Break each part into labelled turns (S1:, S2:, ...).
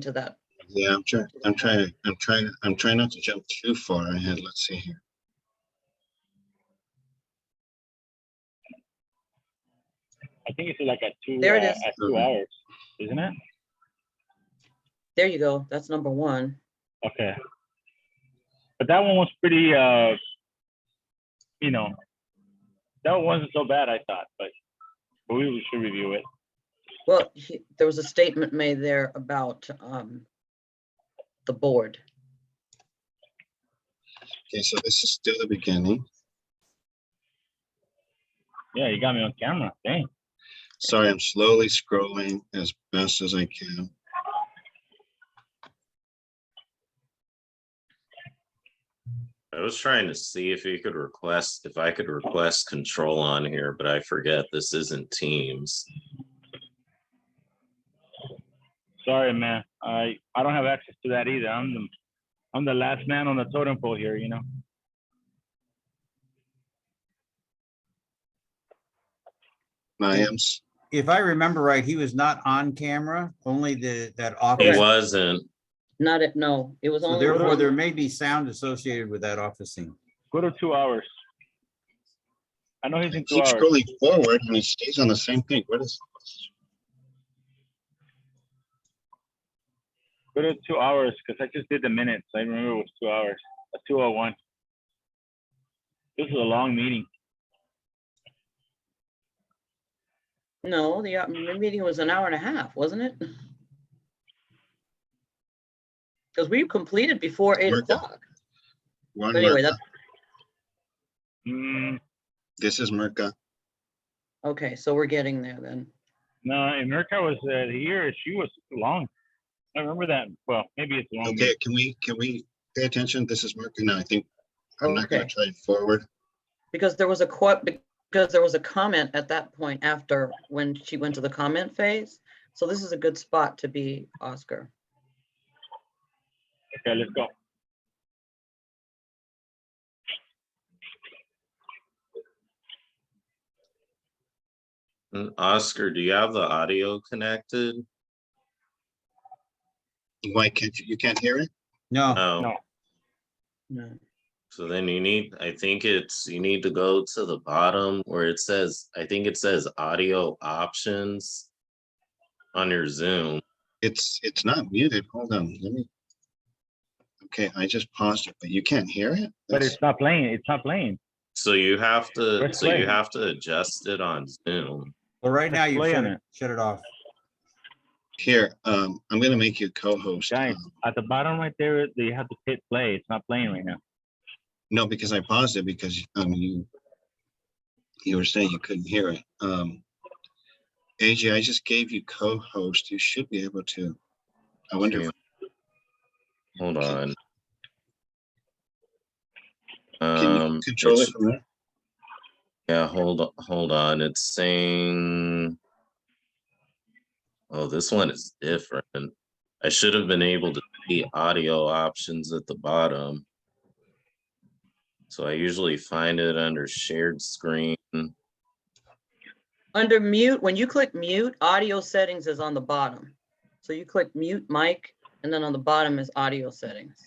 S1: to that.
S2: Yeah, I'm trying, I'm trying, I'm trying, I'm trying not to jump too far ahead. Let's see here.
S3: I think it's like at two,
S1: There it
S3: uh,
S1: is.
S3: at two
S2: Mhm.
S3: hours, isn't it?
S1: There you go. That's number one.
S3: Okay. But that one was pretty, uh, you know, that one wasn't so bad, I thought, but but we should review it.
S1: Well, he- there was a statement made there about um, the board.
S2: Okay, so this is still the beginning.
S3: Yeah, you got me on camera, dang.
S2: Sorry, I'm slowly scrolling as best as I can.
S4: I was trying to see if you could request, if I could request control on here, but I forget this isn't Teams.
S3: Sorry, man. I I don't have access to that either. I'm the I'm the last man on the totem pole here, you know.
S2: I am, s-
S5: If I remember right, he was not on camera, only the, that office.
S4: It
S1: Correct.
S4: wasn't.
S1: Not it, no, it was
S5: So
S1: only.
S5: Therefore,
S1: one.
S5: there may be sound associated with that office scene.
S3: Go to two hours. I know he's in two
S2: keep
S3: hours.
S2: scrolling forward and it stays on the same thing. What is?
S3: Go to two hours because I just did the minutes. I remember it was two hours, a two oh one. This is a long meeting.
S1: No, the uh, m- meeting was an hour and a half, wasn't it? Because we completed before eight
S2: Work it.
S1: o'clock.
S2: One,
S1: But anyway,
S2: Merca.
S1: that's,
S3: Mm,
S2: this is Merca.
S1: okay, so we're getting there then.
S3: No, America was uh, here. She was long. I remember that. Well, maybe it's long.
S2: Okay, can we, can we pay attention? This is Merca now, I think. I'm not gonna
S1: Okay.
S2: try it forward.
S1: Because there was a quote, because there was a comment at that point after when she went to the comment phase. So this is a good spot to be Oscar.
S3: Okay, let's go.
S4: Mm, Oscar, do you have the audio connected?
S2: Why can't you, you can't hear it?
S5: No,
S4: No,
S3: No.
S1: No.
S4: so then you need, I think it's, you need to go to the bottom where it says, I think it says audio options on your Zoom.
S2: It's, it's not muted. Hold on, let me. Okay, I just paused it, but you can't hear it?
S3: But
S2: That's-
S3: it's not playing. It's not playing.
S4: So you have to,
S3: Press
S4: so
S3: play.
S4: you have to adjust it on Zoom.
S5: well, right now you
S3: Play
S5: shut
S3: on
S5: it,
S3: it.
S5: shut it off.
S2: Here, um, I'm gonna make you co-host.
S3: Guys.
S2: um,
S3: At the bottom right there, you have to hit play. It's not playing right now.
S2: No, because I paused it because, um, you, you were saying you couldn't hear it. Um, AJ, I just gave you co-host. You should be able to. I wonder, if-
S4: Hold on.
S2: can you
S4: Um,
S2: control it
S4: it's-
S2: from there?
S4: yeah, hold, o- hold on, it's saying. Oh, this one is different. I should have been able to see audio options at the bottom. So I usually find it under shared screen.
S1: Under mute, when you click mute, audio settings is on the bottom. So you click mute mic, and then on the bottom is audio settings.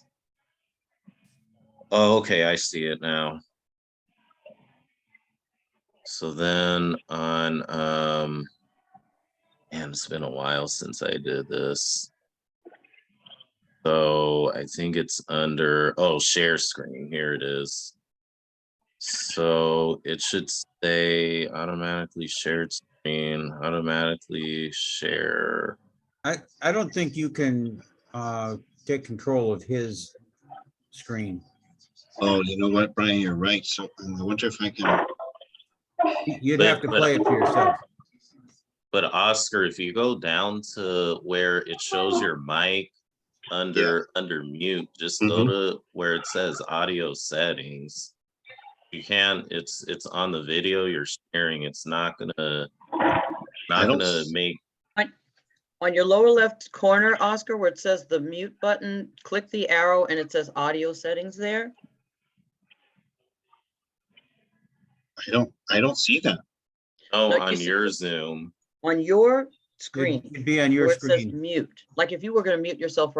S4: Oh, okay, I see it now. So then on, um, man, it's been a while since I did this. So I think it's under, oh, share screen, here it is. So it should say automatically shared screen, automatically share.
S5: I, I don't think you can, uh, take control of his screen.
S2: Oh, you know what, Brian, you're right. So um, I wonder if I can,
S5: You'd have to
S4: But- but-
S5: play it for yourself.
S4: But Oscar, if you go down to where it shows your mic under, under mute, just go
S2: Mm-hmm.
S4: to where it says audio settings. You can, it's, it's on the video you're sharing. It's not gonna,
S2: I
S4: not
S2: don't
S4: gonna
S2: s-
S4: make,
S1: On your lower left corner, Oscar, where it says the mute button, click the arrow and it says audio settings there.
S2: I don't, I don't see that.
S4: oh,
S1: Like you
S4: on
S1: said-
S4: your Zoom.
S1: On your screen.
S5: It'd be on your
S1: where it says
S5: screen.
S1: Mute. Like if you were gonna mute yourself right